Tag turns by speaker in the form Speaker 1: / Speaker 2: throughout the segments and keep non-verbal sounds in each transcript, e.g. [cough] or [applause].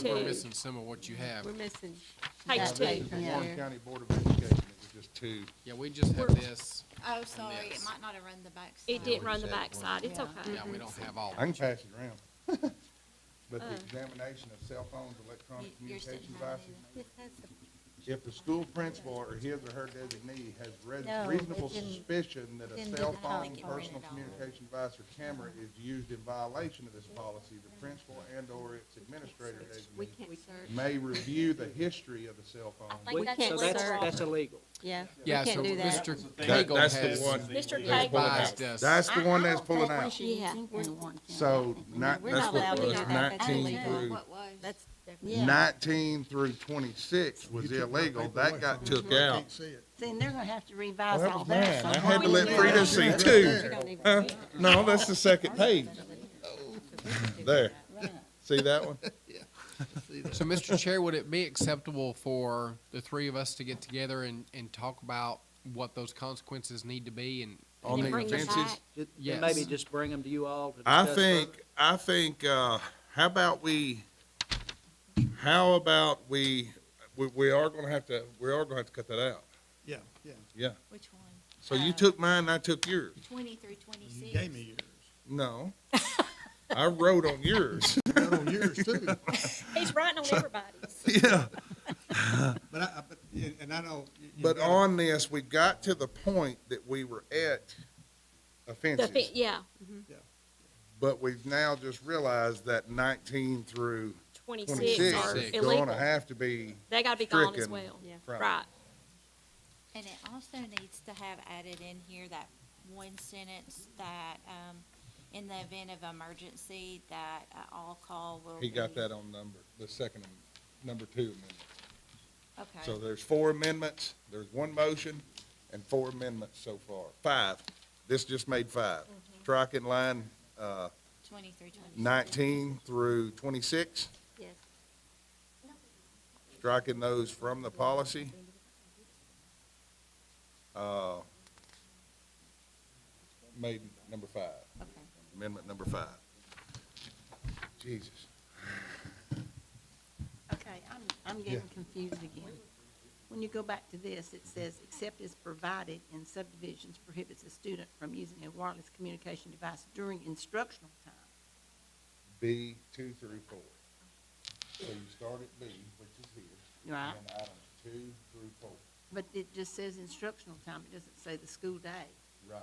Speaker 1: think we're
Speaker 2: two.
Speaker 1: missing some of what you have.
Speaker 2: We're missing.
Speaker 3: Page
Speaker 2: that
Speaker 3: two.
Speaker 2: page
Speaker 3: Yeah.
Speaker 2: right
Speaker 4: Warren
Speaker 2: there.
Speaker 4: County Board of Education, it was just two.
Speaker 1: Yeah, we just have this.
Speaker 3: Oh, sorry, it
Speaker 1: Yes.
Speaker 3: might not have run the back.
Speaker 1: Yeah,
Speaker 3: side.
Speaker 2: It
Speaker 1: did
Speaker 2: didn't
Speaker 1: we
Speaker 2: run the
Speaker 1: said one.
Speaker 2: backside, it's
Speaker 3: Yeah.
Speaker 2: okay.
Speaker 1: Yeah, we don't have all.
Speaker 4: I can pass it around. [laughs] But
Speaker 2: Uh.
Speaker 4: the examination of cell phones, electronic
Speaker 3: You- yours didn't
Speaker 4: communication
Speaker 3: have it
Speaker 4: devices,
Speaker 3: either.
Speaker 4: if the school principal or his or her designee has res-
Speaker 5: No, it
Speaker 4: reasonable
Speaker 5: didn't-
Speaker 4: suspicion that a
Speaker 5: didn't
Speaker 4: cell
Speaker 5: do that. I
Speaker 4: phone,
Speaker 3: think it
Speaker 4: personal
Speaker 3: printed all of it.
Speaker 4: communication device, or camera is used in violation of this policy, the principal and/or its administrator
Speaker 2: We
Speaker 4: designee
Speaker 2: can't search.
Speaker 4: may review the history of the cell phone.
Speaker 5: think
Speaker 6: We-
Speaker 5: that's
Speaker 6: So that's,
Speaker 5: illegal.
Speaker 6: that's illegal.
Speaker 5: Yeah, we
Speaker 1: Yeah, so
Speaker 5: can't do that.
Speaker 1: Mr.
Speaker 4: That-
Speaker 1: Cagle
Speaker 4: that's the
Speaker 1: has
Speaker 4: one.
Speaker 2: Mr.
Speaker 1: advised
Speaker 2: Cagle,
Speaker 1: us.
Speaker 4: That's the one that's pulling
Speaker 5: I don't
Speaker 4: out.
Speaker 5: think we should
Speaker 2: Yeah.
Speaker 5: think we want them.
Speaker 4: So not,
Speaker 5: We're not
Speaker 4: that's
Speaker 5: allowed
Speaker 4: what
Speaker 5: to
Speaker 4: it
Speaker 5: do
Speaker 4: was,
Speaker 5: that. That's
Speaker 4: nineteen
Speaker 5: illegal.
Speaker 4: through,
Speaker 3: What was?
Speaker 5: That's definitely.
Speaker 4: nineteen through twenty-six was illegal. That got took out.
Speaker 5: Then they're gonna have to revise
Speaker 4: Well, that
Speaker 5: all
Speaker 4: was
Speaker 5: that.
Speaker 4: mine. I
Speaker 5: somewhere.
Speaker 4: had to let
Speaker 5: Yeah.
Speaker 4: Frida see too.
Speaker 5: We don't even-
Speaker 4: Huh? No, that's the second page. There. See that one?
Speaker 1: So, Mr. Chair, would it be acceptable for the three of us to get together and, and talk about what those consequences need to be and?
Speaker 4: On the
Speaker 2: bring them
Speaker 4: offenses,
Speaker 2: back.
Speaker 6: Ju-
Speaker 1: Yes.
Speaker 6: And maybe just bring them to you all to
Speaker 4: I
Speaker 6: discuss.
Speaker 4: think, I think, uh, how about we, how about we, we, we are gonna have to, we are gonna have to cut that out.
Speaker 7: Yeah, yeah.
Speaker 4: Yeah.
Speaker 3: Which one?
Speaker 4: So you took mine, I took yours.
Speaker 3: Twenty through
Speaker 7: You
Speaker 3: twenty-six.
Speaker 7: gave me yours.
Speaker 4: No. [laughs] I wrote on yours.
Speaker 7: Not on yours too.
Speaker 3: He's writing on
Speaker 4: [laughs]
Speaker 3: everybody's.
Speaker 4: Yeah.
Speaker 7: But I, I- but, and- and I know. you- you
Speaker 4: But
Speaker 7: gotta-
Speaker 4: on this, we got to the point that we were at
Speaker 2: the, fi-
Speaker 4: offenses.
Speaker 2: yeah,
Speaker 4: But we've now just realized that nineteen through
Speaker 2: twenty-six
Speaker 4: twenty-six
Speaker 2: are
Speaker 4: is
Speaker 2: illegal.
Speaker 4: gonna have to be
Speaker 2: They gotta be gone as
Speaker 4: stricken
Speaker 2: well.
Speaker 5: Yeah.
Speaker 4: from.
Speaker 2: Right,
Speaker 3: And it also needs to have added in here that one sentence that, um, in the event of emergency, that uh, all call will be.
Speaker 4: He got that on number, the second, am- number two amendment. So
Speaker 3: Okay,
Speaker 4: there's four amendments, there's one motion and four amendments so far, five. This just made five.
Speaker 2: Mm-hmm.
Speaker 4: Strike in line, uh,
Speaker 3: twenty through twenty-six.
Speaker 4: nineteen through twenty-six.
Speaker 5: Yes.
Speaker 4: Striking those from the policy. Uh, made number five.
Speaker 3: Okay.
Speaker 4: Amendment number five. Jesus.
Speaker 5: Okay, I'm, I'm getting confused again. When you go back to this, it says, except as provided in subdivisions prohibits a student from using a wireless communication device during instructional time.
Speaker 4: B two through four. So you start at B, which is here,
Speaker 5: Right,
Speaker 4: and items two through four.
Speaker 5: but it just says instructional time, it doesn't say the school day.
Speaker 4: Right.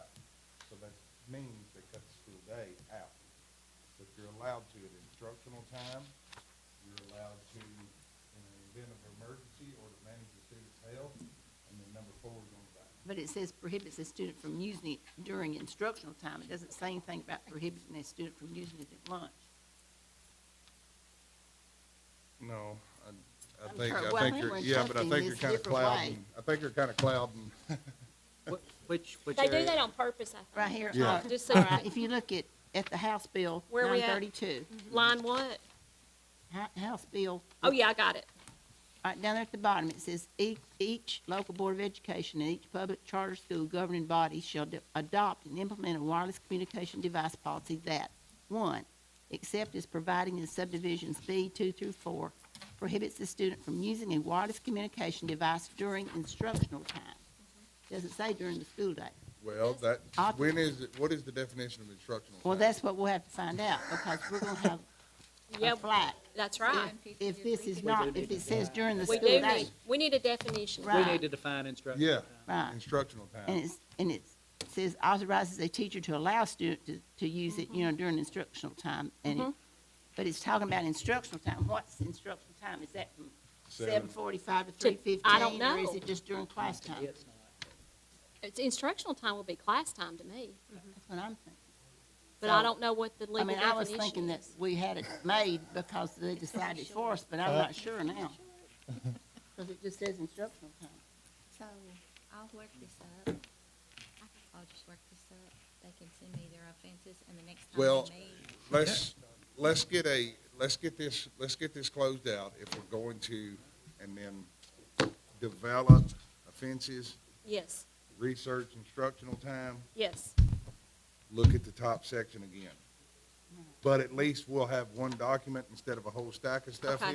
Speaker 4: So that means they cut the school day out. But you're allowed to at instructional time, you're allowed to in an event of emergency or to manage the student's health, and then number four is on the back.
Speaker 5: But it says prohibits a student from using it during instructional time, it doesn't say anything about prohibiting a student from using it at lunch.
Speaker 4: No, I, I
Speaker 5: I'm
Speaker 4: think,
Speaker 5: sure-
Speaker 4: I
Speaker 5: well, I
Speaker 4: think
Speaker 5: think
Speaker 4: you're,
Speaker 5: we're
Speaker 4: yeah, but I
Speaker 5: interpreting
Speaker 4: think you're
Speaker 5: this
Speaker 4: kinda
Speaker 5: different way.
Speaker 4: clouding, I think you're kinda clouding.
Speaker 6: Wh- Which, which
Speaker 2: they do
Speaker 6: area?
Speaker 2: that on purpose, I
Speaker 5: Right here,
Speaker 4: Yeah.
Speaker 5: uh,
Speaker 2: Just so I-
Speaker 5: if you look at, at the House Bill
Speaker 2: Where we
Speaker 5: nine
Speaker 2: at?
Speaker 5: thirty-two,
Speaker 2: think. Line what?
Speaker 5: House Bill
Speaker 2: Oh, yeah, I got it.
Speaker 5: Right down there at the bottom, it says, "Each, each local board of education and each public charter school governing body shall de- adopt and implement a wireless communication device policy that, one, except as providing in subdivisions B two through four, prohibits the student from using a wireless communication device during instructional time." Doesn't say during the school day.
Speaker 4: Well, that,
Speaker 5: Op-
Speaker 4: when is, it? what is the definition of instructional time?
Speaker 5: Well, that's what we'll have to find out, because we're gonna have a
Speaker 2: Yeah,
Speaker 5: flag.
Speaker 2: that's right.
Speaker 5: If this is
Speaker 6: We do
Speaker 5: not,
Speaker 6: need
Speaker 5: if
Speaker 6: to
Speaker 5: it says
Speaker 6: define-
Speaker 5: during the
Speaker 2: We
Speaker 5: school
Speaker 2: do
Speaker 5: day,
Speaker 2: need, we need a definition.
Speaker 5: Right.
Speaker 6: We need to define instruction.
Speaker 4: Yeah.
Speaker 5: right.
Speaker 4: Instructional
Speaker 5: And
Speaker 4: time.
Speaker 5: it's, and it says authorizes a teacher to allow student to, to use it,
Speaker 2: Mm-hmm.
Speaker 5: you know, during instructional time. And it, but it's talking about instructional time. What's instructional time? Is that from seven forty-five to three fifteen?
Speaker 2: I don't
Speaker 5: Or is
Speaker 2: know.
Speaker 5: it just during class time?
Speaker 6: It's not.
Speaker 2: It's instructional time will be class time to me,
Speaker 5: That's what I'm thinking.
Speaker 2: but I
Speaker 5: So-
Speaker 2: don't know what the
Speaker 5: I
Speaker 2: legal
Speaker 5: mean,
Speaker 2: definition
Speaker 5: I was thinking that
Speaker 2: is.
Speaker 5: we had it made because they decided for us, but I'm not sure
Speaker 2: [laughs]
Speaker 5: now. Cause it just says instructional time.
Speaker 3: So I'll work this up. I'll just work this up. They can send me their offenses and the next time
Speaker 4: Well,
Speaker 3: they meet.
Speaker 4: Let's, let's get a, let's get this, let's get this closed out if we're going to, and then develop offenses,
Speaker 2: Yes,
Speaker 4: research instructional time,
Speaker 2: yes,
Speaker 4: look at the top section again. But at least we'll have one document instead of a whole stack of stuff
Speaker 2: Okay.